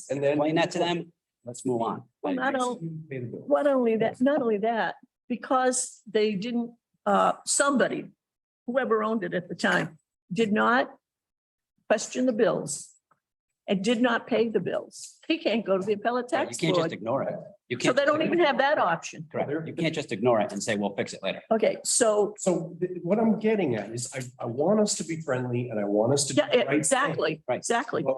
let's And then- explain that to them. Let's move on. not all- Pay the bill. Not only that, not only that, because they didn't, uh, somebody, whoever owned it at the time, did not question the bills and did not pay the bills. He can't go to the appellate Right, tax You can't just board. ignore it. You So can't. they don't even have that option. Correct. You can't just ignore it and say, we'll fix it later. Okay, so, So th- what I'm getting at is I, I want us to be friendly and I want us to. do yeah, the right thing. exactly, Right. exactly. But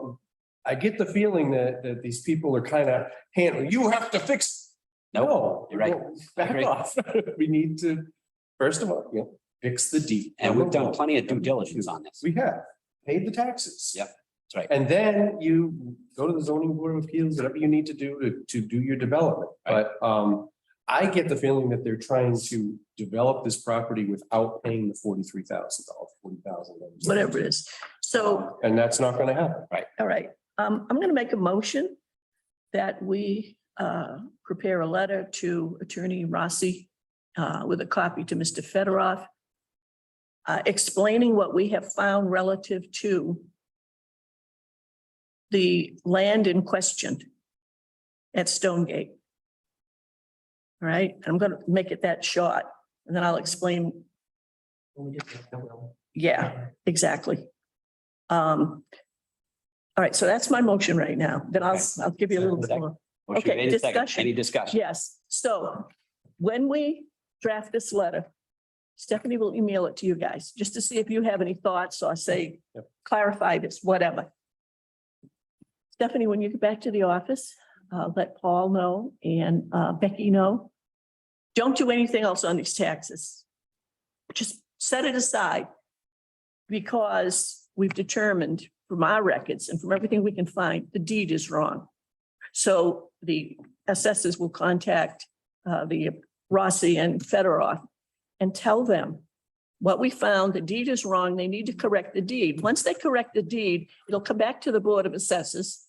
I get the feeling that, that these people are kind of handling, you have to fix. No. you're right. no, I Back agree. off. We need to, first of all, you know, fix the deed. And we've done plenty of due diligence on this. We have paid the taxes. Yep, that's right. And then you go to the zoning board of appeals, whatever you need to do to, to do your development. But, um, I get the feeling that they're trying to develop this property without paying the forty-three thousand dollars, forty thousand. whatever it is. So, And that's not gonna happen. all right, um, I'm gonna make a motion that we, uh, prepare a letter to Attorney Rossi, uh, with a copy to Mr. Fedorov, uh, explaining what we have found relative to the land in question at Stonegate. All right, I'm gonna make it that short, and then I'll explain, yeah. Exactly. Um, all right, so that's my motion right now. Then I'll, I'll give you a little bit more. Motion Okay, made and seconded. discussion. Any discussion? Yes, so when we draft this letter, Stephanie will email it to you guys, just to see if you have any thoughts or say, Yep. clarify this, whatever. Stephanie, when you get back to the office, uh, let Paul know and, uh, Becky know. Don't do anything else on these taxes. Just set it aside. Because we've determined from our records and from everything we can find, the deed is wrong. So the assessors will contact uh, the Rossi and Federoff and tell them what we found, the deed is wrong, they need to correct the deed. Once they correct the deed, it'll come back to the Board of Assessors.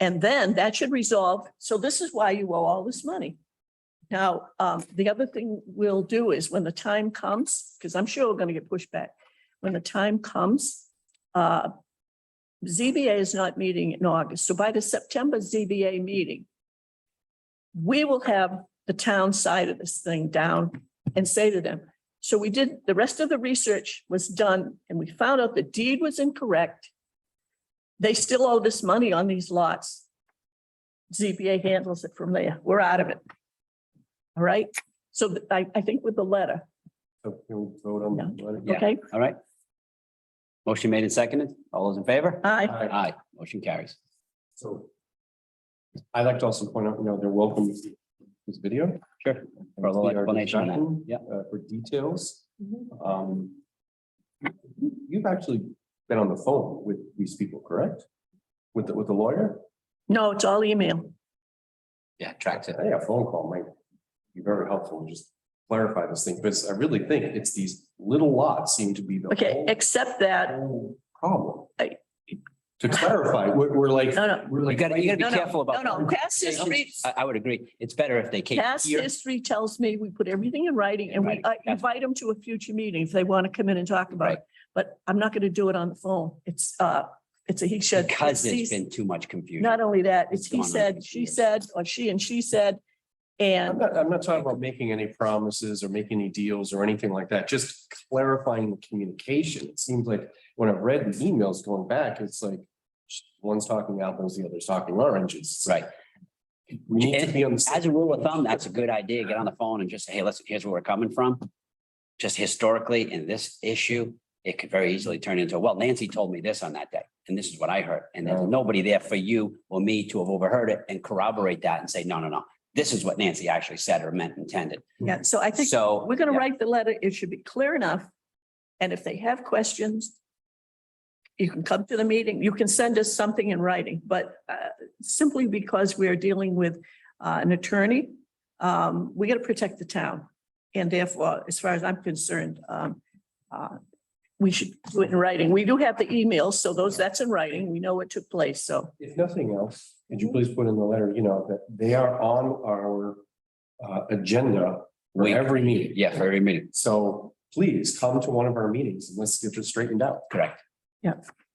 And then that should resolve, so this is why you owe all this money. Now, um, the other thing we'll do is when the time comes, because I'm sure we're gonna get pushback, when the time comes, uh, ZBA is not meeting in August, so by the September ZBA meeting, we will have the town side of this thing down and say to them, so we did, the rest of the research was done and we found out the deed was incorrect. They still owe this money on these lots. ZBA handles it from there. We're out of it. All right, so th- I, I think with the letter, So can we vote on that? Yeah. okay? All right. Motion made and seconded. All those in favor? I, Aye. Aye. Motion carries. So. I'd like to also point out, you know, they're welcome to see this video. Sure. For a little explanation on that. Yep. Uh, for details. Mm-hmm. Um. You've actually been on the phone with these people, correct? With, the with the lawyer? no, it's all email. Yeah, tracks it. Hey, a phone call might be very helpful, to just clarify this thing, because I really think it's these little lots seem to be the Okay, whole- except that, whole problem. I- To Uh, clarify, we're, we're like. No, no. We're You like. gotta, you gotta no, be no, careful no, about. no, past history, I, I would agree. It's better if they came Past here. history tells me we put everything in writing and we Right, uh, yeah. invite them to a future meeting if they want to come in and talk about Right. it. But I'm not going to do it on the phone. It's, uh, it's a he said. Because it's there's he- been too much confusion. Not only that, it's he Going on said, for she years. said, or she and she said. I'm And not, I'm not talking about making any promises or making any deals or anything like that, just clarifying the communication. It seems like when I've read the emails going back, it's like one's talking apples, the other's talking oranges. Right. We need to be on the. same- As a rule of thumb, that's a good idea. Get on the phone and just say, hey, listen, here's where we're coming from. Just historically, in this issue, it could very easily turn into, well, Nancy told me this on that day, and this is what I heard. And there's Yeah. nobody there for you or me to have overheard it and corroborate that and say, no, no, no. This is what Nancy actually said or meant intended. yeah, so I think So. we're going to yeah, write the letter. It should be clear enough. And if they have questions, you can come to the meeting. You can send us something in writing, but uh, simply because we're dealing with uh, an attorney, um, we got to protect the town. And therefore, as far as I'm concerned, um, uh, we should do it in writing. We do have the emails, so those, that's in writing. We know what took place, so. If nothing else, could you please put in the letter, you know, that they are on our uh, agenda for Wait. every meeting. Yeah, for every meeting. So please come to one of our meetings and let's get this straightened out. Correct. Yeah.